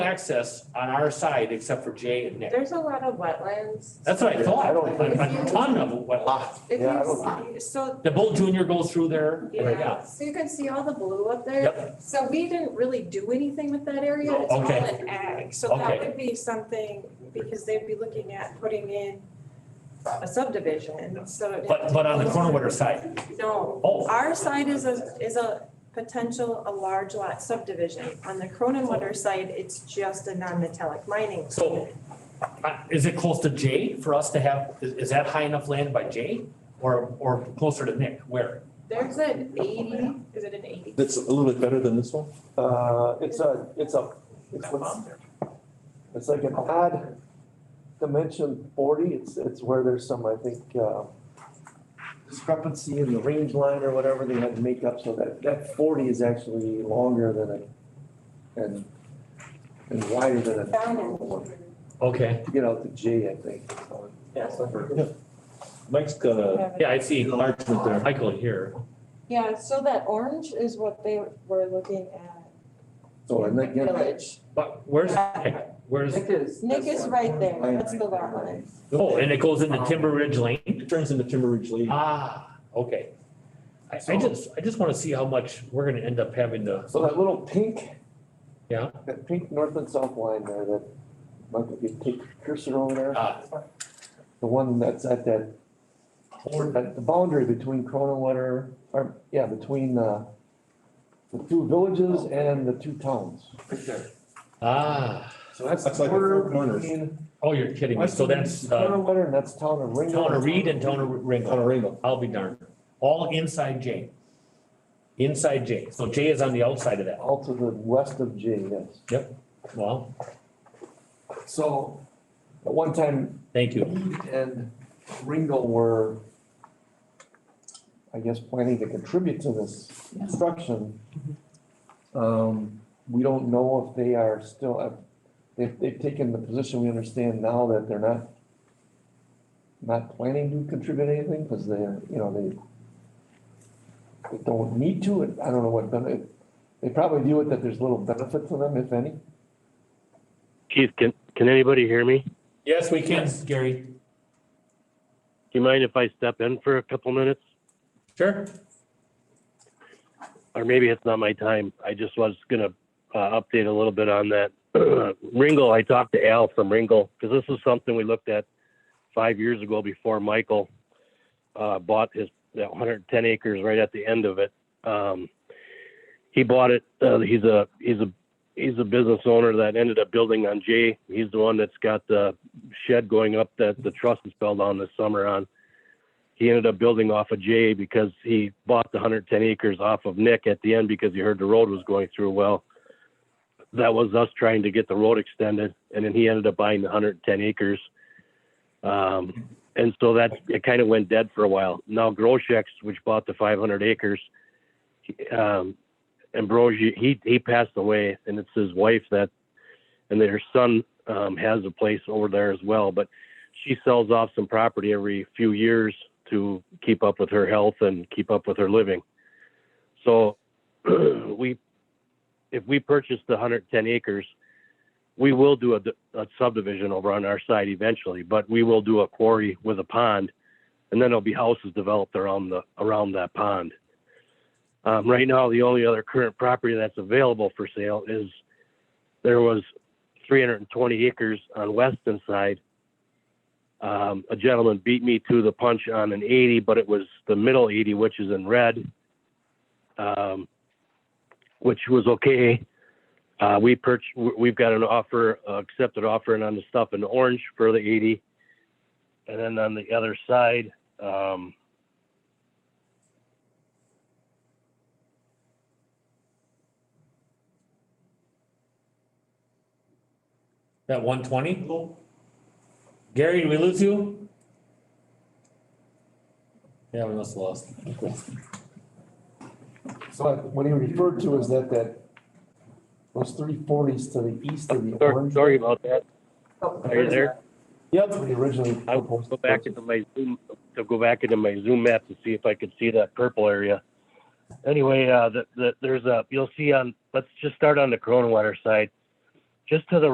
access on our side except for Jay and Nick. There's a lot of wetlands. That's what I thought, I don't a think- a ton of wetlands. If Yeah, I you, see- so, The Bull Junior goes through there. yeah, so you can see all the blue up there. Oh Yep. So we didn't really do anything with that area. It's all Okay. in ag. So that Okay. would be something, because they'd be looking at putting in a subdivision, so. it'd have But, to- but on the Cornwater side, No, oh, our side is a, is a potential, a large lot subdivision. On the Croninwater side, it's just a non-metallic mining. So- uh, is it close to Jay for us to have, is, is that high enough land by Jay? Or, or closer to Nick, where? There's an eighty, is it an eighty? That's a little bit better than this one? Uh, it's a, it's a, it's what's, it's like an odd dimension forty, it's, it's where there's some, I think, uh, discrepancy in the range line or whatever they had to make up, so that, that forty is actually longer than it, and, and wider than it. Down in- Okay, To get out to J, I think. Mike's got a yeah, I see enlargement there. Michael here. Yeah, so that orange is what they were looking at, So, and then. village. But where's Nick? Where's, Nick is right there, that's the lot line. oh, and it goes into Timber Ridge Lane? It turns into Timber Ridge Lane. Ah, okay. I, I just, I just wanna see how much we're gonna end up having to, So that little pink. Yeah. That pink north and south line there, that, Michael, if you take your cursor over there. Ah. The one that's at that, or at the boundary between Croninwater, or, yeah, between, uh, the two villages and the two towns. ah, So that's. That's like the four corners. oh, you're kidding me, so that's, uh, Croninwater and that's town of Ringo. Town of Reed and Town of On Ringel, a ring. I'll be darned, all inside J. Inside J, so J is on the outside of that, All to the west of J, yes. well, So, at one time, thank you. Reed and Ringo were, I guess, planning to contribute to this construction. Mm-hmm. Um, we don't know if they are still, uh, they've, they've taken the position we understand now that they're not, not planning to contribute anything, because they're, you know, they, they don't need to, and I don't know what, benefit they probably view it that there's little benefit to them, if any. Keith, can can anybody hear me? Do Yes, we can, Gary, you mind if I step in for a couple minutes? sure, Or maybe it's not my time. I just was gonna uh, update a little bit on that. Ringel, I talked to Al from Ringel because this is something we looked at five years ago before Michael uh, bought his that 110 acres right at the end of it. Um, he bought it. Uh, he's a he's a he's a business owner that ended up building on Jay. He's the one that's got the shed going up that the trust is fell down this summer on. He ended up building off of Jay because he bought the 110 acres off of Nick at the end because he heard the road was going through. Well, that was us trying to get the road extended, and then he ended up buying the 110 acres. Um, and so that it kind of went dead for a while. Now Grosheks, which bought the 500 acres, he- um, Ambrosi, he he passed away, and it's his wife that, and their son um, has a place over there as well. But she sells off some property every few years to keep up with her health and keep up with her living. So we, if we purchase the 110 acres, we will do a, d- a subdivision over on our side eventually, but we will do a quarry with a pond, and then there'll be houses developed around the around that pond. Um, right now, the only other current property that's available for sale is there was 320 acres on Weston side. Um, a gentleman beat me to the punch on an 80, but it was the middle 80, which is in red, um, which was okay. Uh, we perch, we've got an offer, uh, accepted offer, and on the stuff in orange for the 80. And then on the other side, um, that one twenty? Gary, did we lose you? Yeah, we must have lost. So what he referred to is that, that, those three forties to the east of the sorry, orange. sorry about that. Are you there? Yep, we originally. I will go back into my Zoom, to go back into my Zoom map to see if I could see that purple area. Anyway, uh, the, the, there's a, you'll see on, let's just start on the Cronin Water side. just to the